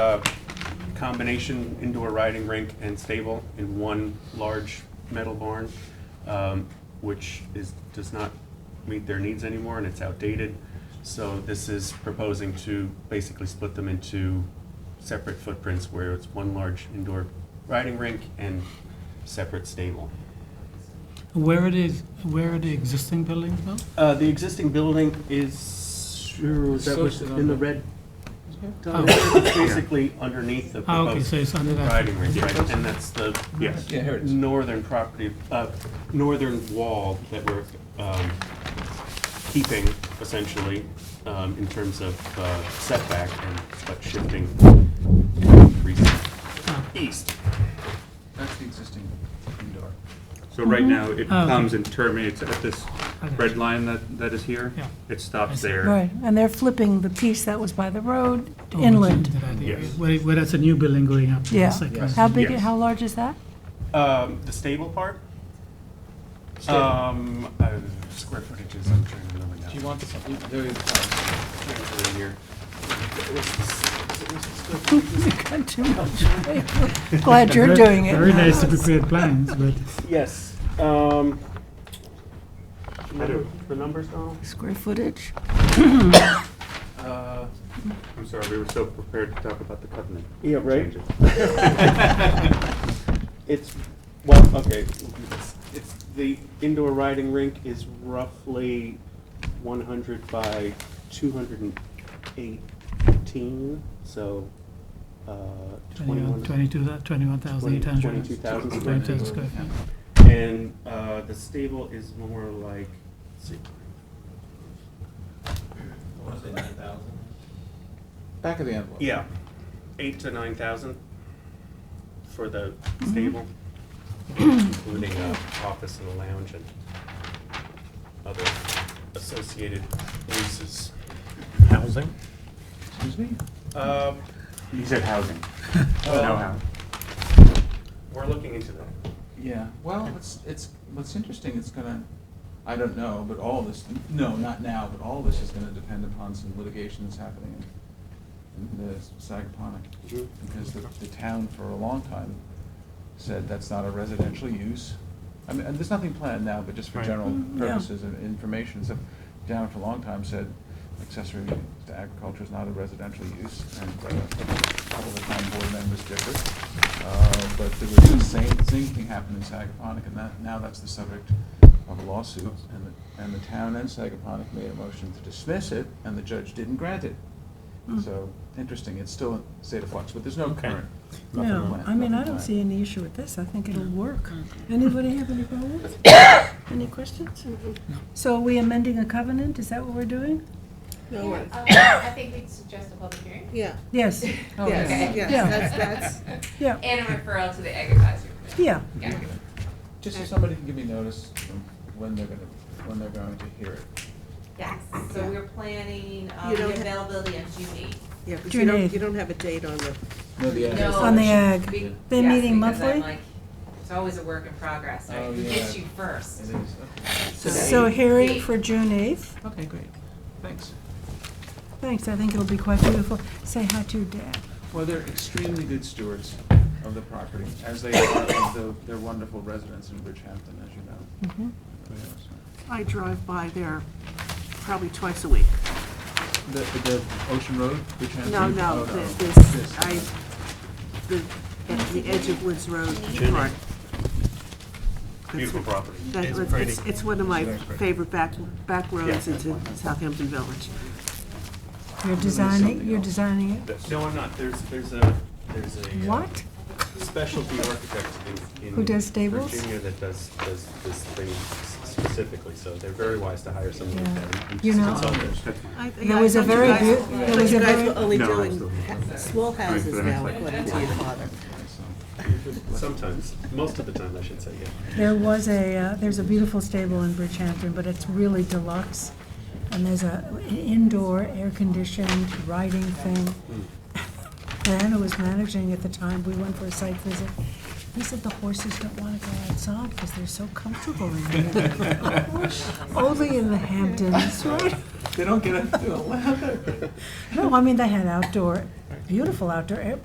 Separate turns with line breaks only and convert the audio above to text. uh, combination indoor riding rink and stable in one large metal barn, um, which is, does not meet their needs anymore and it's outdated. So this is proposing to basically split them into separate footprints where it's one large indoor riding rink and separate stable.
Where it is, where are the existing buildings now?
Uh, the existing building is, is that was in the red.
Oh.
It's Basically underneath the
Ah, okay,
proposed
so it's under that.
riding ring, right, and that's the
Yes. Yeah, here it is.
northern property, uh, northern wall that we're, um, keeping essentially, um, in terms of uh, setback and, but shifting increasing
Ah.
east.
That's the existing indoor.
So right now, it
Oh, okay.
comes and terminates at this red line that, that is here.
Yeah.
It
I
stops
see.
there.
Right, and they're flipping the piece that was by the road
Oh, which is
inland.
that area,
Yes.
Where, where that's a new building going up. to the
Yeah.
second.
How big,
Yes.
how large is that?
Um, the stable part? Um, uh, square footages, I'm trying to remember now.
Do you want this, there you go.
Over here.
Got too much. Glad you're doing it.
Very nice to prepare plans, but uh,
Yes, um. The numbers, Donald?
Square footage?
Uh,
I'm sorry, we were so prepared to talk about the covenant.
Yeah, right.
changes.
It's, well, okay, it's, it's, the indoor riding rink is roughly one hundred by two hundred and eighteen, so, uh, twenty-one.
twenty-one, twenty-two, that, twenty-one thousand eight hundred.
22,000 square
Twenty-two
feet.
square feet.
And, uh, the stable is more like, let's see.
Back of the envelope.
Yeah, eight to nine thousand for the
Mm-hmm.
stable, including uh, office and a lounge and other associated uses.
Housing?
Excuse me?
Um,
You said housing.
uh,
No housing.
We're looking into that.
Yeah, well, it's, it's, what's interesting, it's gonna, I don't know, but all this, no, not now, but all this is gonna depend upon some litigation that's happening in the Sagaponic.
Mhm.
Because the, the town for a long time said that's not a residential use. I mean, and there's nothing planned now, but just for
Right.
general
Mm, yeah.
purposes and information, so town for a long time said accessory to agriculture is not a residential use, and uh, a couple of the town board members differed. Uh, But there was the same, same thing happened in Sagaponic, and that, now that's the subject of a lawsuit, and, the- and the town and Sagaponic made a motion to dismiss it, and the judge didn't grant it. So, interesting, it's still in state of flux, but there's no current. nothing
No,
planned,
I mean,
nothing
I don't
planned.
see any issue with this, I think it'll work.
Mm.
Anybody have any problems? Any questions?
So are we amending a covenant? Is that what we're doing?
Yeah,
No.
um, I think we'd suggest a public hearing.
Yeah,
Yes,
Oh,
yes,
yeah.
yes, that's, that's,
yeah,
And a referral to the Ag Advisory Committee.
yeah.
Yeah.
Just so somebody can give me notice of when they're gonna, when they're going to hear it.
Yes, so we're planning, um,
You
the
don't ha-
availability of June eighth.
yeah, because you
June
don't,
eighth.
you don't have a date on the,
No, the ad is-
No.
On the ag.
We-
Yeah.
They're
yes,
meeting
because I'm
monthly?
like, It's always a work in progress, right?
Oh,
Who gets
yeah. It
you
is,
first?
okay.
So hearing for June 8th.
Okay, great, thanks.
Thanks, I think it'll be quite beautiful. Say hi to your dad.
Well, they're extremely good stewards of the property, as they are of the, their wonderful residents in Bridgehampton, as you know.
Mm-hmm.
So,
I drive by there probably twice a week.
The, the Ocean Road, Bridgehampton?
No, no,
Oh,
the- this,
This.
I, the, at the edge of Woods Road part. That's
Beautiful
what-
property.
that- It's, it's one of my favorite back, back roads
Yeah.
into Southampton Village.
You're designing, you're designing it?
No, I'm not, there's, there's a, there's a. uh,
What?
Specialty architect in. in
Who does stables?
Virginia that does, does this thing specifically, so they're very wise to hire someone
Yeah.
like that. and
You know- um,
consult it.
I-
There
I
was a
thought you
very
guys-
beau- there
thought
was
you
a
guys
very-
were only
No, I'm
doing small houses
the
now,
next slide.
according to your father.
Sometimes, most of the time, I should say, yeah.
There was a, uh, there's a beautiful stable in Bridgehampton, but it's really deluxe. And there's a an indoor, air-conditioned riding thing. And Anna was managing at the time, we went for a site visit. They said the horses don't want to go outside because they're so comfortable in there. Only in the Hamptons, right?
They don't get up to a ladder.
No, I mean, they had outdoor beautiful outdoor air,